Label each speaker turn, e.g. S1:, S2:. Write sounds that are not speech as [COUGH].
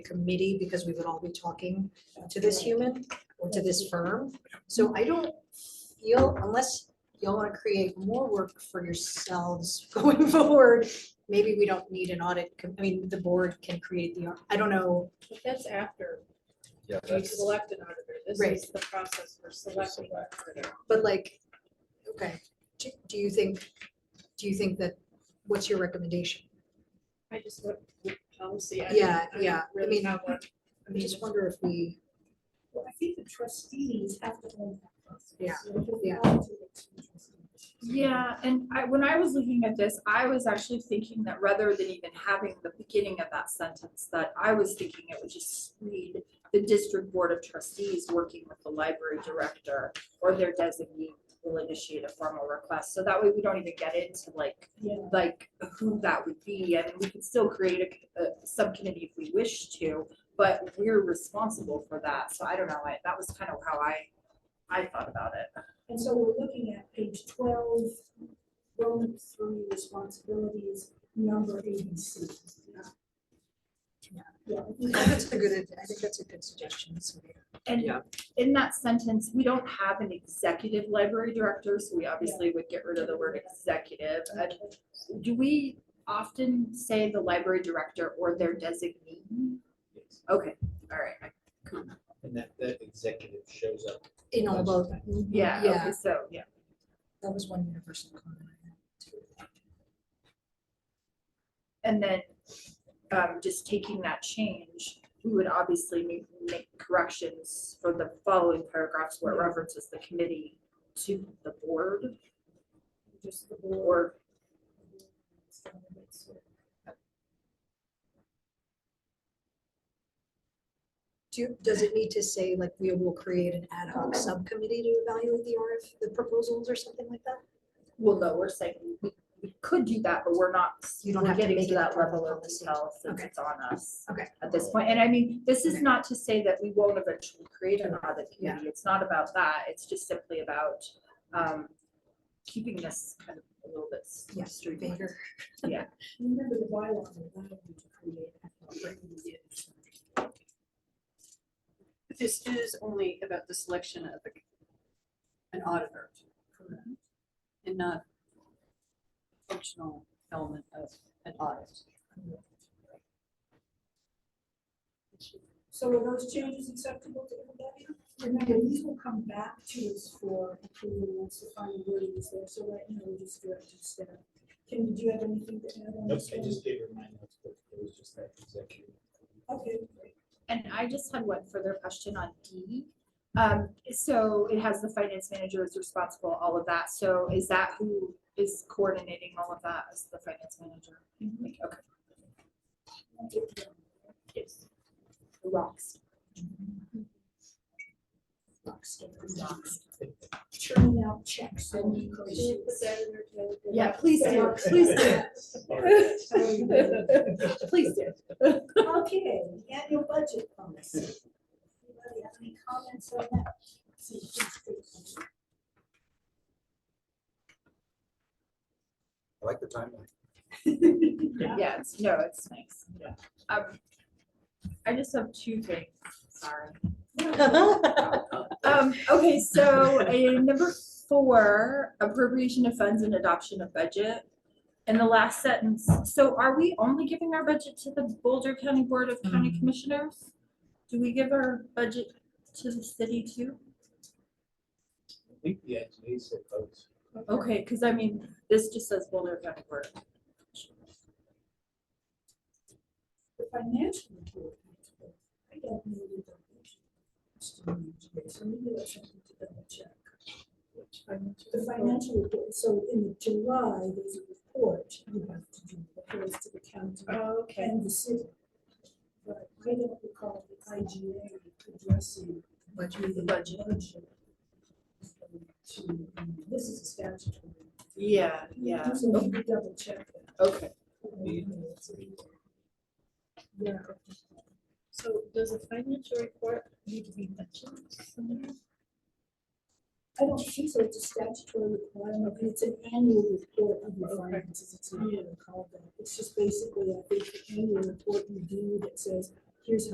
S1: committee because we would all be talking to this human or to this firm. So I don't feel, unless y'all want to create more work for yourselves [LAUGHS] going forward, maybe we don't need an audit, com- I mean, the board can create the, I don't know,
S2: But That's after
S3: Yeah,
S2: we
S3: that's,
S2: select an auditor. This is
S1: Right.
S2: the process for selecting an auditor.
S1: but like, okay, do, do you think, do you think that, what's your recommendation?
S2: I just want the policy. I
S1: Yeah,
S2: don't- I
S1: yeah, I
S2: Really
S1: mean-
S2: not one.
S1: I just wonder if we,
S4: Well, I think the trustees have to own that process.
S1: Yeah,
S4: You know,
S1: yeah.
S4: all of it's the trustees.
S5: Yeah, and I, when I was looking at this, I was actually thinking that rather than even having the beginning of that sentence, that I was thinking it would just read the district board of trustees working with the library director or their designee will initiate a formal request. So that way we don't even get into like,
S4: Yeah.
S5: like who that would be. And we could still create a, a subcommittee if we wish to, but we're responsible for that. So I don't know, I, that was kind of how I, I thought about it.
S4: And so we're looking at page twelve, Roman three responsibilities, number A and C.
S1: Yeah.
S4: Yeah.
S1: I think that's a good, I think that's a good suggestion. so we-
S5: And
S1: Yeah.
S5: in that sentence, we don't have an executive library director, so we obviously would get rid of the word executive. And Do we often say the library director or their designee? Okay, all right.
S3: and that, that executive shows up.
S1: In all both. Mm-hmm.
S5: Yeah,
S1: Yeah.
S5: okay, so, yeah.
S1: That was one universal comment I had too.
S5: And then, um, just taking that change, we would obviously make, make corrections for the following paragraphs where it references the committee to the board. Just the board.
S1: Do, you- does it need to say like we will create an ad hoc subcommittee to evaluate the RF, the proposals or something like that?
S5: Well, no, we're saying we, we could do that, but we're not,
S1: You don't
S5: we're
S1: have to
S5: getting
S1: make
S5: to
S1: it
S5: that
S1: part of
S5: level
S1: the
S5: of
S1: policy.
S5: detail since
S1: Okay.
S5: it's on us.
S1: Okay.
S5: At this point, and I mean, this is
S1: Okay.
S5: not to say that we won't eventually create an audit
S1: Yeah.
S5: committee, it's not about that, it's just simply about, um, keeping this kind of a little bit s-
S1: Yeah,
S5: streamlined.
S1: Vader. [LAUGHS]
S4: Remember the bylaw, that allowed you to create a committee.
S1: [LAUGHS]
S2: This is only about the selection of the- an auditor. correct? And not functional element of an [LAUGHS] audit.
S4: So are those changes acceptable to everybody? Remember, these will come back to us for approval once the final wording is there, so right now we just direct to staff. Can, do you have anything to add on
S3: Nope,
S4: this
S3: I
S4: one?
S3: just gave her my notes, but it was just that executive.
S4: Okay, great.
S5: And I just had one further question on D. Um, so it has the finance manager is responsible, all of that, so is that who is coordinating all of that as the finance manager? Like, Okay. Yes. Rocks.
S4: Churning out checks and
S5: Yeah, please
S3: [LAUGHS]
S5: do,
S4: Rocks.
S5: please do,
S4: Um,
S5: please do.
S4: Okay, annual budget policy. Anybody have any comments on that? See, please do.
S3: I like the timeline.
S5: Yeah, it's, no, it's nice. Um, I just have two things, sorry. Um, okay, so uh, number four, appropriation of funds and adoption of budget. In the last sentence, so are we only giving our budget to the Boulder County Board of County Commissioners? Do we give our budget to the city too?
S3: I think the idea is that votes.
S5: Okay, because I mean, this just says Boulder County Board.
S4: the financial report. I don't know the definition. So maybe that's something to double check. The financial report, so in July, there's a report you have to do, that goes to the county
S5: Okay.
S4: and the city. But I don't recall the IGA addressing. Budget. The budget. To, this is a statutory.
S5: Yeah, yeah,
S4: So maybe double check that.
S5: okay.
S4: Yeah.
S2: So does a financial report need to be mentioned somewhere?
S4: I don't think so, it's a statutory requirement, and it's an annual report of your finances, it's not even called that. It's just basically, I think, the annual report you do that says, here's how